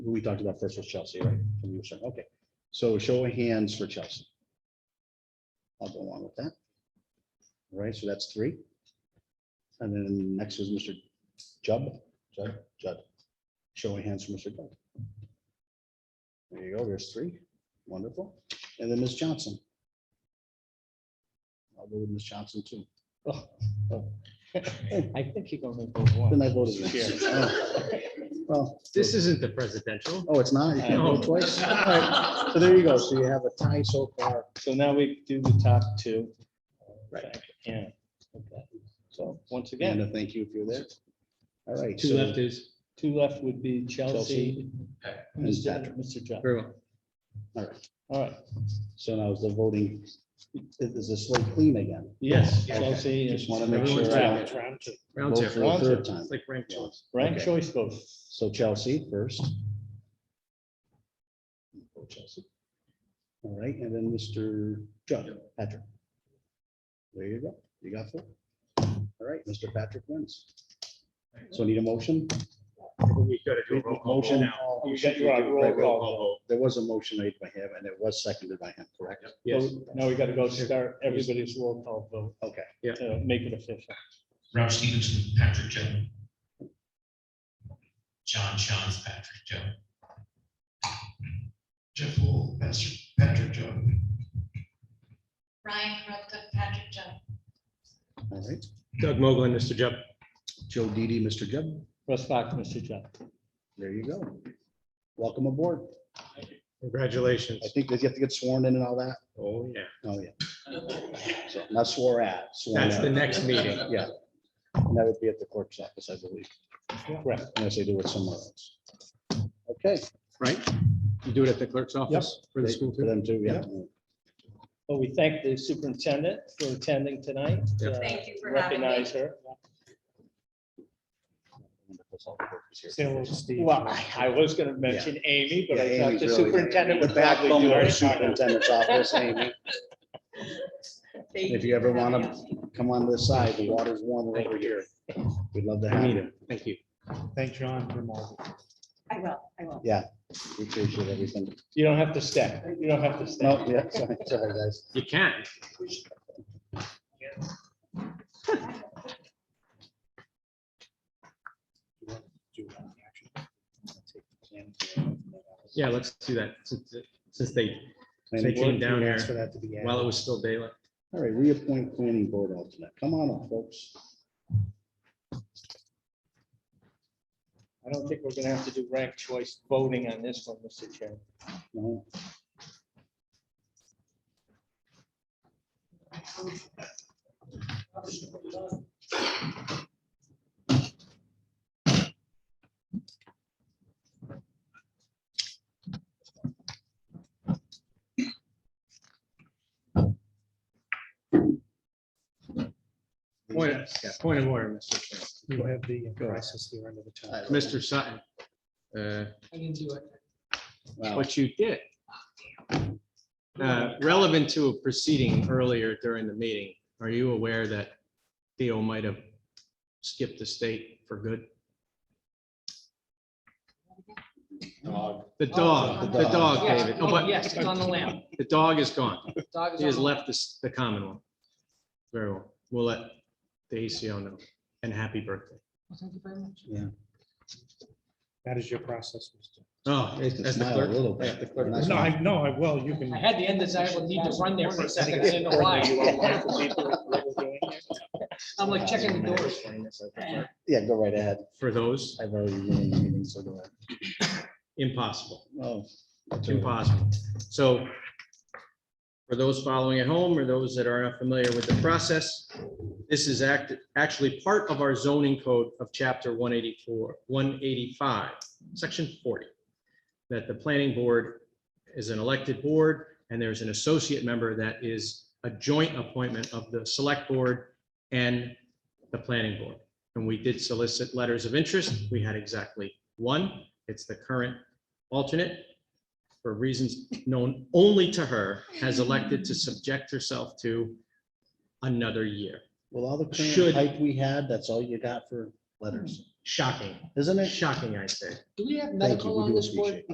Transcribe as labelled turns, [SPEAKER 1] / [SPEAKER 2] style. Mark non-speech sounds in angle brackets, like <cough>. [SPEAKER 1] who we talked about first was Chelsea, right? From your side, okay. So show of hands for Chelsea. I'll go along with that. All right, so that's three. And then next is Mr. Judd, Judd, Judd. Show of hands for Mr. Judd. There you go, there's three. Wonderful. And then Ms. Johnson. I'll go with Ms. Johnson too. Oh, oh, <laughs>
[SPEAKER 2] I think you're gonna go one.
[SPEAKER 1] Then I voted next. Oh, Well,
[SPEAKER 3] This isn't the
[SPEAKER 1] <laughs>
[SPEAKER 3] presidential.
[SPEAKER 1] oh, it's not, you can't vote
[SPEAKER 3] <laughs>
[SPEAKER 1] twice. All right, So there you go. So you have a tie so far.
[SPEAKER 2] So now we do the top two.
[SPEAKER 1] Right.
[SPEAKER 2] Yeah. Okay. So once
[SPEAKER 1] Amanda,
[SPEAKER 2] again,
[SPEAKER 1] thank you if you're there. All right.
[SPEAKER 3] Two
[SPEAKER 1] so-
[SPEAKER 3] left is,
[SPEAKER 2] two left would be Chelsea.
[SPEAKER 1] Chelsea. And
[SPEAKER 2] Mr.
[SPEAKER 1] Patrick.
[SPEAKER 2] Mr. John.
[SPEAKER 3] very well.
[SPEAKER 1] All right.
[SPEAKER 2] All right.
[SPEAKER 1] So now is the voting, is is the slate clean again?
[SPEAKER 2] Yes,
[SPEAKER 1] Okay.
[SPEAKER 2] Chelsea.
[SPEAKER 1] Just
[SPEAKER 2] is
[SPEAKER 1] wanna make
[SPEAKER 3] sure I-
[SPEAKER 2] round-
[SPEAKER 3] Round
[SPEAKER 1] Vote for
[SPEAKER 3] two.
[SPEAKER 1] the
[SPEAKER 2] Round
[SPEAKER 1] Third
[SPEAKER 2] two.
[SPEAKER 1] time.
[SPEAKER 3] It's like ranked
[SPEAKER 1] Yeah.
[SPEAKER 3] choice.
[SPEAKER 2] Rank
[SPEAKER 1] Okay.
[SPEAKER 2] choice vote.
[SPEAKER 1] So Chelsea first. Vote Chelsea. All right, and then Mr. Judd, Patrick. There you go. You got four. All right, Mr. Patrick wins. So need a motion?
[SPEAKER 3] We gotta do a roll call
[SPEAKER 1] Motion.
[SPEAKER 3] now.
[SPEAKER 2] You got your roll call.
[SPEAKER 1] There was a motion made by him and it was seconded by him, correct?
[SPEAKER 3] Yes,
[SPEAKER 2] Now we gotta go start everybody's roll call vote.
[SPEAKER 1] Okay.
[SPEAKER 3] Yeah.
[SPEAKER 2] To make it official.
[SPEAKER 4] Rob Stevenson, Patrick Joe. John Shaw's Patrick Joe. Jeff Wall, Pastor Patrick Joe.
[SPEAKER 5] Ryan Rovka, Patrick Judd.
[SPEAKER 1] All right.
[SPEAKER 3] Doug Mogul and Mr. Jupp.
[SPEAKER 1] Joe Didi, Mr. Judd,
[SPEAKER 2] Russ Fox, Mr. John.
[SPEAKER 1] there you go. Welcome aboard.
[SPEAKER 3] Congratulations.
[SPEAKER 1] I think that you have to get sworn in and all that.
[SPEAKER 3] Oh, yeah.
[SPEAKER 1] Oh, yeah. So Not swore at, sworn
[SPEAKER 3] That's the
[SPEAKER 1] in.
[SPEAKER 3] next meeting.
[SPEAKER 1] Yeah. And that would be at the clerk's office, I believe. Correct. Unless they do it somewhere else. Okay.
[SPEAKER 3] Right? You do it at the clerk's office for the
[SPEAKER 1] They-
[SPEAKER 3] school
[SPEAKER 1] For
[SPEAKER 3] too?
[SPEAKER 1] them too, yeah.
[SPEAKER 2] Well, we thank the superintendent for attending tonight.
[SPEAKER 3] Yep.
[SPEAKER 2] Uh,
[SPEAKER 5] Thank you for having me.
[SPEAKER 2] Recognize her. uh, Well, I- I was gonna mention Amy, but I
[SPEAKER 1] Yeah,
[SPEAKER 2] thought
[SPEAKER 1] Amy's
[SPEAKER 2] the
[SPEAKER 1] really-
[SPEAKER 2] superintendent
[SPEAKER 1] The
[SPEAKER 2] would probably
[SPEAKER 1] backbone
[SPEAKER 2] do
[SPEAKER 1] of the
[SPEAKER 2] it.
[SPEAKER 1] superintendent's office, Amy. If you ever want to come on this side, the water's warmer over here. We'd love to have you.
[SPEAKER 3] Thank you.
[SPEAKER 6] Thank John for all.
[SPEAKER 5] I will, I will.
[SPEAKER 1] We appreciate everything.
[SPEAKER 2] You don't have to stay. You don't have to stay.
[SPEAKER 1] No, Oh, yeah, sorry, <laughs> sorry, guys.
[SPEAKER 3] You can. Yeah, let's do that since, since they, they
[SPEAKER 1] Planning board.
[SPEAKER 3] came down here
[SPEAKER 6] For that to be. added.
[SPEAKER 3] while it was still daylight.
[SPEAKER 1] All right, reappoint planning board alternate. Come on up, folks.
[SPEAKER 2] I don't think we're gonna have to do ranked choice voting on this one, Mr. Chairman.
[SPEAKER 1] No.
[SPEAKER 3] Point of, yeah, point of order, Mr. Chairman.
[SPEAKER 6] You have the process here under the top.
[SPEAKER 3] Mr. Sutton. uh,
[SPEAKER 1] Wow.
[SPEAKER 3] what you did. Uh, Relevant to a proceeding earlier during the meeting, are you aware that Theo might have skipped the state for good? The dog, the
[SPEAKER 1] dog.
[SPEAKER 3] dog,
[SPEAKER 7] Yes.
[SPEAKER 3] David. Oh,
[SPEAKER 7] Oh,
[SPEAKER 3] but
[SPEAKER 7] yes, it's on the lamp.
[SPEAKER 3] The dog is gone.
[SPEAKER 7] Dog
[SPEAKER 3] He
[SPEAKER 7] is
[SPEAKER 3] has
[SPEAKER 7] on the
[SPEAKER 3] left this- the common one. Very well. We'll let the ACO know. And happy birthday.
[SPEAKER 7] lamp. Thank you very much.
[SPEAKER 6] That is your process. Mr.
[SPEAKER 3] Oh,
[SPEAKER 1] They can
[SPEAKER 3] that's the
[SPEAKER 1] smile a
[SPEAKER 3] clerk.
[SPEAKER 1] little
[SPEAKER 3] Yeah,
[SPEAKER 1] bit.
[SPEAKER 3] the clerk.
[SPEAKER 1] We're not
[SPEAKER 6] No, I, no, I will. You
[SPEAKER 7] I
[SPEAKER 6] can,
[SPEAKER 7] had the undesirable need to run there for a second.
[SPEAKER 2] <laughs>
[SPEAKER 7] I didn't know why. I'm like checking the doors.
[SPEAKER 1] Yeah, go right ahead.
[SPEAKER 3] For those,
[SPEAKER 1] I've already ruined the meeting, so go ahead.
[SPEAKER 3] impossible.
[SPEAKER 1] Oh.
[SPEAKER 3] It's impossible. So for those following at home or those that are not familiar with the process, this is act, actually part of our zoning code of chapter one eighty-four, one eighty-five, section forty. That the planning board is an elected board and there's an associate member that is a joint appointment of the select board and the planning board. And we did solicit letters of interest. We had exactly one. It's the current alternate for reasons known only to her, has elected to subject herself to another year.
[SPEAKER 1] Well, all the
[SPEAKER 3] Should-
[SPEAKER 1] current hype we had, that's all you got for letters,
[SPEAKER 8] Shocking,
[SPEAKER 1] isn't it?
[SPEAKER 8] shocking, I say.
[SPEAKER 3] Do we have
[SPEAKER 1] Thank you.
[SPEAKER 3] medical
[SPEAKER 1] We
[SPEAKER 3] on
[SPEAKER 1] do
[SPEAKER 3] this board?
[SPEAKER 1] appreciate it.